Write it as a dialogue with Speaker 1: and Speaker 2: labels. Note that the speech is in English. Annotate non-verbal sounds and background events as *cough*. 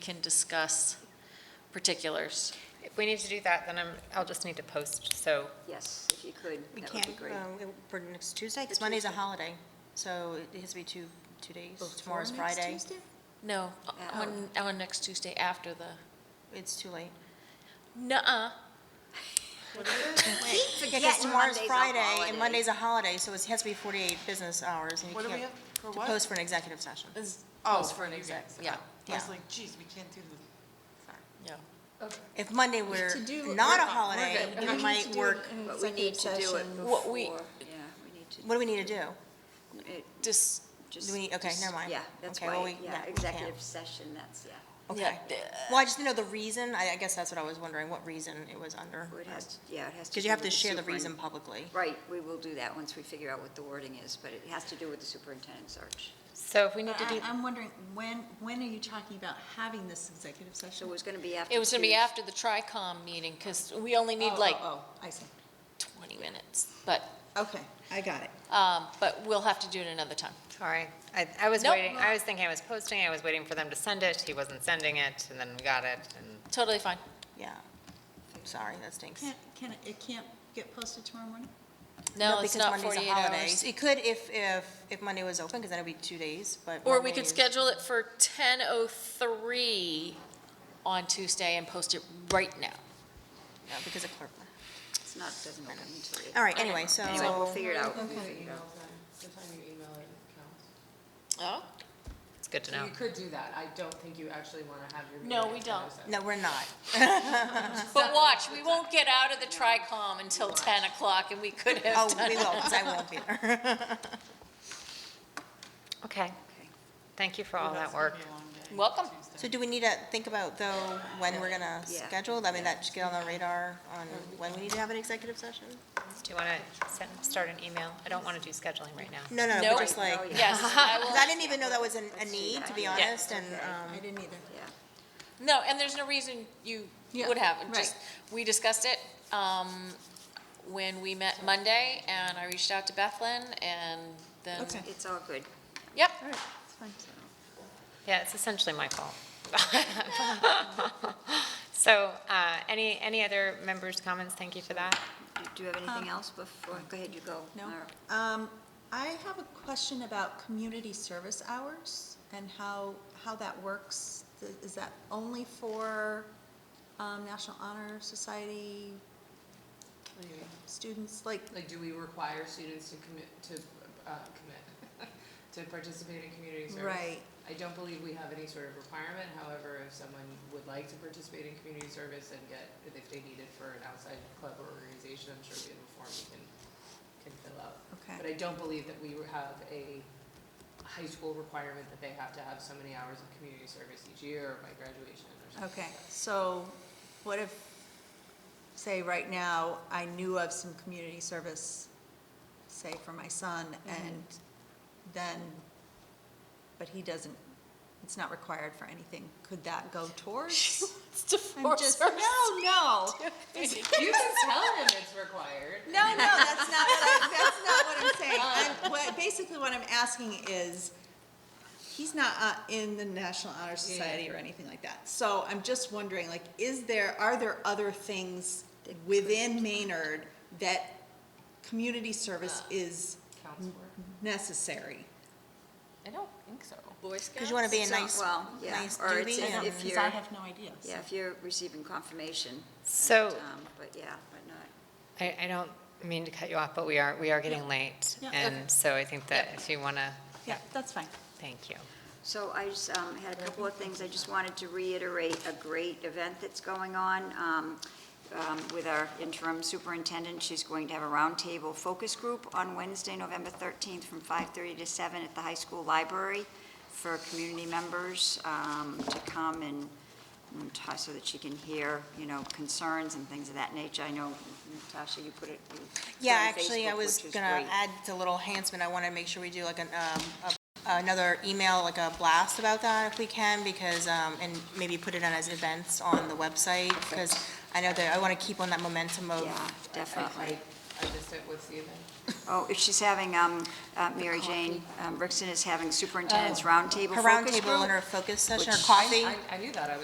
Speaker 1: can discuss particulars.
Speaker 2: If we need to do that, then I'm, I'll just need to post, so,
Speaker 3: Yes, if you could,
Speaker 4: We
Speaker 3: that would
Speaker 4: can't,
Speaker 3: be great.
Speaker 4: um, it- for next Tuesday, because Monday's a holiday, so it has to be two, two days. Tomorrow's
Speaker 3: Before next
Speaker 4: Friday.
Speaker 3: Tuesday?
Speaker 1: No,
Speaker 3: Oh.
Speaker 1: on, on next Tuesday after the,
Speaker 4: It's too late.
Speaker 1: nuh-uh,
Speaker 4: Because tomorrow's
Speaker 3: Monday's a
Speaker 4: Friday,
Speaker 3: holiday.
Speaker 4: and Monday's a holiday, so it has to be 48 business hours, and you
Speaker 5: What do we
Speaker 4: can't,
Speaker 5: have?
Speaker 4: to
Speaker 5: For what?
Speaker 4: post for an executive session.
Speaker 1: is,
Speaker 5: Oh,
Speaker 1: Post for an
Speaker 5: you
Speaker 1: exec,
Speaker 5: guys.
Speaker 1: yeah,
Speaker 5: I was
Speaker 4: yeah.
Speaker 5: like, geez, we can't do the,
Speaker 1: yeah.
Speaker 4: If Monday were not a holiday, we might work,
Speaker 3: But we need to do it before,
Speaker 1: What we-
Speaker 3: yeah, we need to.
Speaker 4: what do we need to do?
Speaker 3: it
Speaker 1: Just,
Speaker 3: just-
Speaker 4: Do we need- okay,
Speaker 3: just-
Speaker 4: never mind.
Speaker 3: Yeah, that's
Speaker 4: Okay, well,
Speaker 3: why,
Speaker 4: we- no, we
Speaker 3: yeah,
Speaker 4: can't.
Speaker 3: executive session, that's, yeah.
Speaker 1: yeah,
Speaker 4: Okay.
Speaker 1: d-
Speaker 4: Well, I just didn't know the reason, I I guess that's what I was wondering, what reason it was under.
Speaker 3: It has, to- yeah, it has to.
Speaker 4: Because
Speaker 3: do
Speaker 4: you have to
Speaker 3: with
Speaker 4: share the
Speaker 3: superin-
Speaker 4: reason publicly.
Speaker 3: Right, we will do that once we figure out what the wording is, but it has to do with the superintendent search.
Speaker 2: so if we need
Speaker 6: But
Speaker 2: to
Speaker 6: I-
Speaker 2: do,
Speaker 7: Uh,
Speaker 6: I'm wondering, when, when are you talking about having this executive
Speaker 3: So
Speaker 6: session?
Speaker 3: it was going to be after.
Speaker 1: it was gonna be
Speaker 3: Tues-
Speaker 1: after the TRICOM meeting, because we only need
Speaker 6: Oh,
Speaker 1: like
Speaker 6: Oh, oh, I see.
Speaker 1: twenty minutes, but,
Speaker 6: Okay, I got it.
Speaker 1: um, but we'll have to do it another time.
Speaker 2: sorry. I, I was
Speaker 1: Nope.
Speaker 2: waiting, I was thinking I was posting, I was waiting for them to send it, he wasn't sending it, and then we got it, and
Speaker 1: Totally fine.
Speaker 4: Yeah. Sorry, that stinks.
Speaker 6: Can't, can, it- it can't get posted tomorrow morning?
Speaker 1: No, it's
Speaker 4: because
Speaker 1: not
Speaker 4: Monday's a
Speaker 1: forty-eight
Speaker 4: holiday.
Speaker 1: hours.
Speaker 4: It could if, if, if Monday was open, because then it'd be two days, but.
Speaker 1: Or we could
Speaker 4: Monday's-
Speaker 1: schedule it for ten oh three on Tuesday and post it right now.
Speaker 4: No, because of clerk.
Speaker 3: It's not, doesn't open until.
Speaker 4: All right, anyway, so.
Speaker 3: Anyway, we'll figure it out. We'll
Speaker 6: Okay.
Speaker 3: figure it out.
Speaker 7: Sometimes you email it counts.
Speaker 1: Oh?
Speaker 2: it's good to know.
Speaker 7: So you could do that. I don't think you actually want to have your.
Speaker 1: No,
Speaker 7: meeting
Speaker 1: we
Speaker 7: at 10
Speaker 1: don't.
Speaker 7: oh seven.
Speaker 4: No, we're not.
Speaker 1: But watch, we won't get out of the TRICOM until ten o'clock, and we could
Speaker 4: Oh,
Speaker 1: have done
Speaker 4: we
Speaker 1: it.
Speaker 4: will, because
Speaker 1: *laughs*
Speaker 4: I won't be there.
Speaker 2: Okay,
Speaker 3: Okay.
Speaker 2: thank you for all that
Speaker 7: That's gonna
Speaker 2: work.
Speaker 7: be a long day.
Speaker 1: Welcome.
Speaker 4: So do we need to think about, though, when we're gonna
Speaker 3: Yeah.
Speaker 4: schedule? I mean, that should get on the radar on when we need to have an executive session?
Speaker 2: Do you want to send, start an email? I don't want to do scheduling right now.
Speaker 4: No, no,
Speaker 1: No.
Speaker 4: we're just like,
Speaker 3: Oh, yeah.
Speaker 1: Yes, I
Speaker 4: 'cause
Speaker 1: will.
Speaker 4: I didn't even know that was an- a need, to be
Speaker 3: Yeah.
Speaker 4: honest, and, um,
Speaker 6: I didn't either.
Speaker 3: Yeah.
Speaker 1: No, and there's no reason you
Speaker 6: Yeah,
Speaker 1: would have. it.
Speaker 6: right.
Speaker 1: Just, we discussed it um, when we met Monday, and I reached out to Bethlen, and then,
Speaker 6: Okay.
Speaker 3: It's all good.
Speaker 1: yep.
Speaker 2: Yeah, it's essentially my fault. *laughs* So, uh, any, any other members' comments? Thank you for that.
Speaker 3: Do- Do you have
Speaker 4: Um,
Speaker 3: anything else before, go ahead, you go.
Speaker 6: No?
Speaker 3: Mara.
Speaker 6: Um, I have a question about community service hours and how, how that works. Th- Is that only for, um, National Honor Society
Speaker 7: What do you mean?
Speaker 6: students? Like,
Speaker 7: Like, do we require students to commit, to, uh, commit, *laughs* to participate in community service?
Speaker 6: Right.
Speaker 7: I don't believe we have any sort of requirement. However, if someone would like to participate in community service and get, if they need it for an outside club or organization, I'm sure we have a form we can, can fill out.
Speaker 6: Okay.
Speaker 7: But I don't believe that we have a high school requirement that they have to have so many hours of community service each year or by graduation or something.
Speaker 6: Okay, so what if, say, right now, I knew of some community service, say, for my son, and then, but he doesn't, it's not required for anything, could that go towards?
Speaker 1: It's to
Speaker 6: *laughs* I'm
Speaker 1: force
Speaker 6: just,
Speaker 1: her.
Speaker 6: no, no,
Speaker 7: You can tell them it's required.
Speaker 6: no, no, that's not what I, that's not what I'm saying. I'm, what, basically what I'm asking is, he's not uh, in the National Honor Society or anything like that. So I'm just wondering, like, is there, are there other things within Maynard that community service is
Speaker 7: Uh, Counts for.
Speaker 6: necessary?
Speaker 7: I don't think so.
Speaker 4: because you want to be a
Speaker 3: So-
Speaker 4: nice,
Speaker 3: well, yeah,
Speaker 4: nice
Speaker 3: or it's-
Speaker 4: doobie
Speaker 3: if-
Speaker 4: and.
Speaker 3: if you're-
Speaker 6: no idea.
Speaker 3: Yeah, if you're receiving confirmation.
Speaker 2: So-
Speaker 3: but, um, But yeah, but not.
Speaker 2: I, I don't mean to cut you off, but we are, we are getting late.
Speaker 6: Yeah.
Speaker 2: And so I think that if you want to,
Speaker 6: Yeah, that's fine.
Speaker 2: thank you.
Speaker 3: So I just um, had a couple of things. I just wanted to reiterate a great event that's going on um, um, with our interim superintendent. She's going to have a roundtable focus group on Wednesday, November 13th, from 5:30 to 7 at the high school library for community members um, to come and Natasha, so that she can hear, you know, concerns and things of that nature. I know, Natasha, you put it. you put it
Speaker 4: Yeah,
Speaker 3: on
Speaker 4: actually, I
Speaker 3: Facebook,
Speaker 4: was
Speaker 3: which is
Speaker 4: gonna
Speaker 3: great.
Speaker 4: add to little enhancement, I wanna make sure we do like an, um, a- another email, like a blast about that if we can, because, um, and maybe put it on as events on the website, because I know that I wanna keep on that momentum of.
Speaker 3: Yeah, definitely.
Speaker 4: like,
Speaker 7: I missed it, what's the event?
Speaker 3: Oh, if she's having, um, uh, Mary Jane, um, Brixton is having superintendent's roundtable
Speaker 4: Oh, Her
Speaker 3: focus
Speaker 4: roundtable and
Speaker 3: group.
Speaker 4: her focus session, her
Speaker 3: Which-
Speaker 4: coffee.
Speaker 7: I, I knew that, I was